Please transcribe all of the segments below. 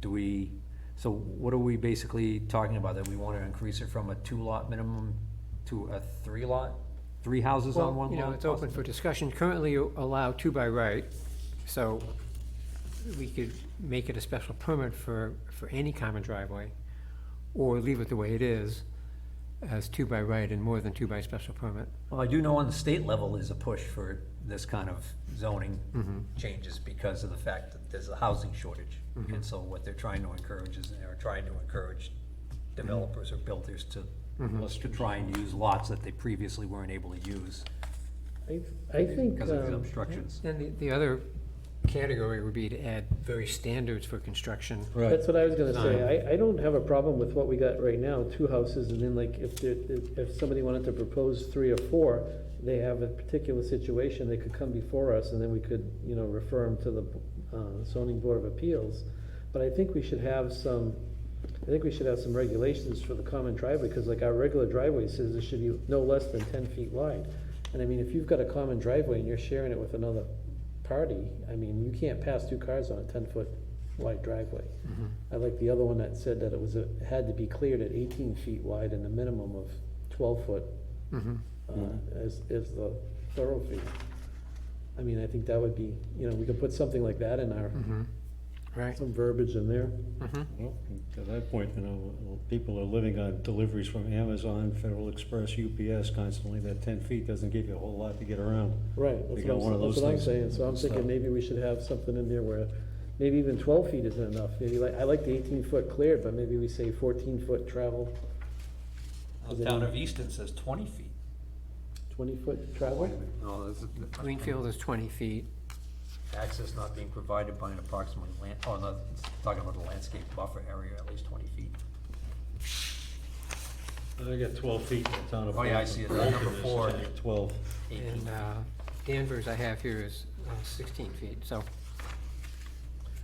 do we, so what are we basically talking about? That we want to increase it from a two-lot minimum to a three-lot? Three houses on Well, one lot? you know, it's open for discussion. Currently you allow two by right, so we could make it a special permit for, for any common driveway, or leave it the way it is, as two by right and more than two by special permit. Well, I do know on the state level is a push for this kind of zoning changes because of the fact that there's a housing shortage. And so what they're trying to encourage is, they're trying to encourage developers or builders to, let's to try and use lots that they previously weren't able to use I, I think, because of the um, obstructions. Then the, the other category would be to add various standards for construction. that's what I was gonna say, I, I don't have a problem with what we got right now, two houses, and then like, if, there- if, if somebody wanted to propose three or four, they have a particular situation, they could come before us, and then we could, you know, refer them to the uh, zoning board of appeals. But I think we should have some, I think we should have some regulations for the common driveway, because like our regular driveway says it should be no less than ten feet wide. And I mean, if you've got a common driveway and you're sharing it with another party, I mean, you can't pass two cars on a ten-foot wide driveway. Mm-hmm. I like the other one that said that it was, a- had to be cleared at eighteen feet wide and a minimum of twelve foot Mm-hmm. uh, Mm-hmm. as, as the thoroughfare. I mean, I think that would be, you know, we could put something like that in our, Mm-hmm. Right. some verbiage in there. Well, At that point, you know, people are living on deliveries from Amazon, Federal Express, UPS constantly. That ten feet doesn't give you a whole lot to get around. Right, We that's got what one I'm, of that's those what I'm things. saying, so I'm thinking So- maybe we should have something in there where, maybe even twelve feet isn't enough, maybe like, I like the eighteen foot cleared, but maybe we say fourteen foot travel, The town of Easton says twenty feet. twenty foot travel? No, this is, Greenfield is twenty feet. access not being provided by an approximately land, oh, no, it's talking about the landscape buffer area, at least twenty feet. I got twelve feet in the town of. Oh, yeah, I see it. Bolton. Number four. Twelve. And, uh, Danvers I have here is uh, sixteen feet, so.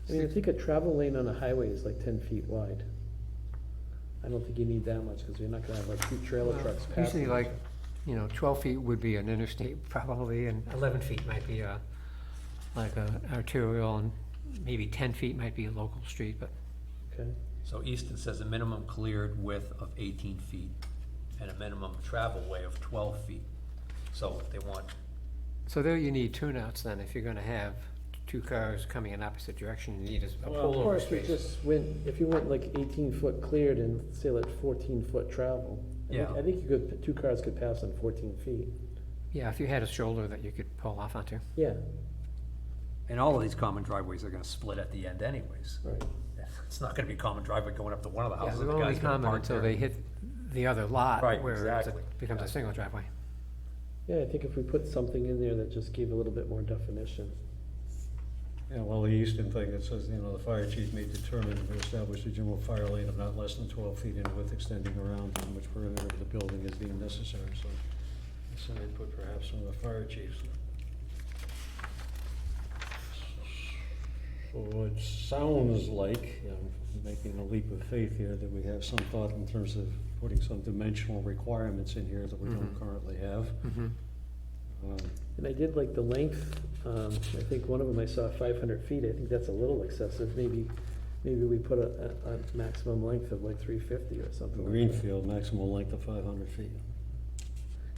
I mean, I think a travel lane on a highway is like ten feet wide. I don't think you need that much, because you're not gonna have like two trailer Well, trucks passing. Usually like, you know, twelve feet would be an interstate probably, and eleven feet might be a, like a arterial, and maybe ten feet might be a local street, but Okay, So Easton says a minimum cleared width of eighteen feet and a minimum travel way of twelve feet. So they want, So there you need turnouts then, if you're gonna have two cars coming in opposite direction, you need a a of pullover course, we space. just went, if you went like eighteen foot cleared and say like fourteen foot travel. I think- Yeah. I think you could, two cars could pass on fourteen feet, Yeah, if you had a shoulder that you could pull off onto. yeah, and all of these common driveways are gonna split at the end anyways. right. It's not gonna be a common driveway going up to one of the Yeah, houses, they're Oh, the only guy's gonna common park until there. they hit the other lot. Right, Where it's a- exactly. becomes a single driveway. Yeah, I think if we put something in there that just gave a little bit more definition. Yeah, well, the Easton thing, it says, you know, the fire chief may determine if established a general fire lane of not less than twelve feet in width extending around in which perimeter of the building is deemed necessary, so. that's Some input perhaps from the fire chiefs. So it sounds like, I'm making a leap of faith here, that we have some thought in terms of putting some dimensional requirements in here that we don't currently have. Mm-hmm, Um, And I did like the length, um, I think one of them I saw five hundred feet, I think that's a little excessive, maybe, maybe we put a, a, a maximum length of like three fifty or something like that. Greenfield, maximum length of five hundred feet.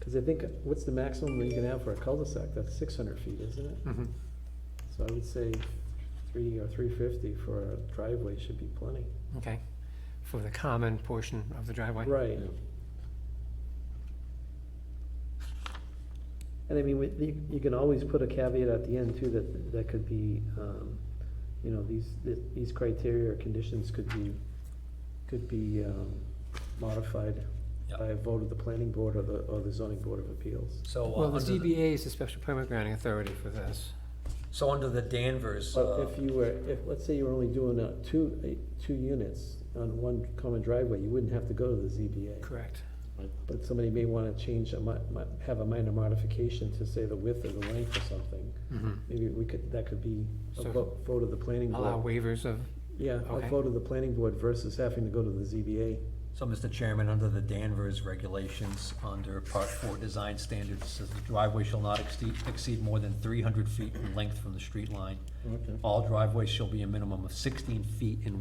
Cause I think, what's the maximum that you can have for a cul-de-sac, that's six hundred feet, isn't it? Mhm. So I would say three or three fifty for a driveway should be plenty. Okay, for the common portion of the driveway. Right, Yeah. and I mean, with, you, you can always put a caveat at the end too, that, that could be, um, you know, these, th- these criteria or conditions could be, could be, um, modified Yeah. by a vote of the planning board or the, or the zoning board of appeals. So, uh, Well, the under the, ZBA is the special permit granting authority for this. so under the Danvers, But uh, if you were, if, let's say you were only doing, uh, two, uh, two units on one common driveway, you wouldn't have to go to the ZBA. Correct. But somebody may wanna change, a mi- mi- have a minor modification to say the width or the length or something. Maybe we could, that could be Mm-hmm. a So- vote, vote of the planning Allow board. waivers of, Yeah, a okay. vote of the planning board versus having to go to the ZBA. so Mr. Chairman, under the Danvers regulations, under part four design standards, it says the driveway shall not exceed, exceed more than three hundred feet in length from the street line. Okay. All driveways shall be a minimum of sixteen feet in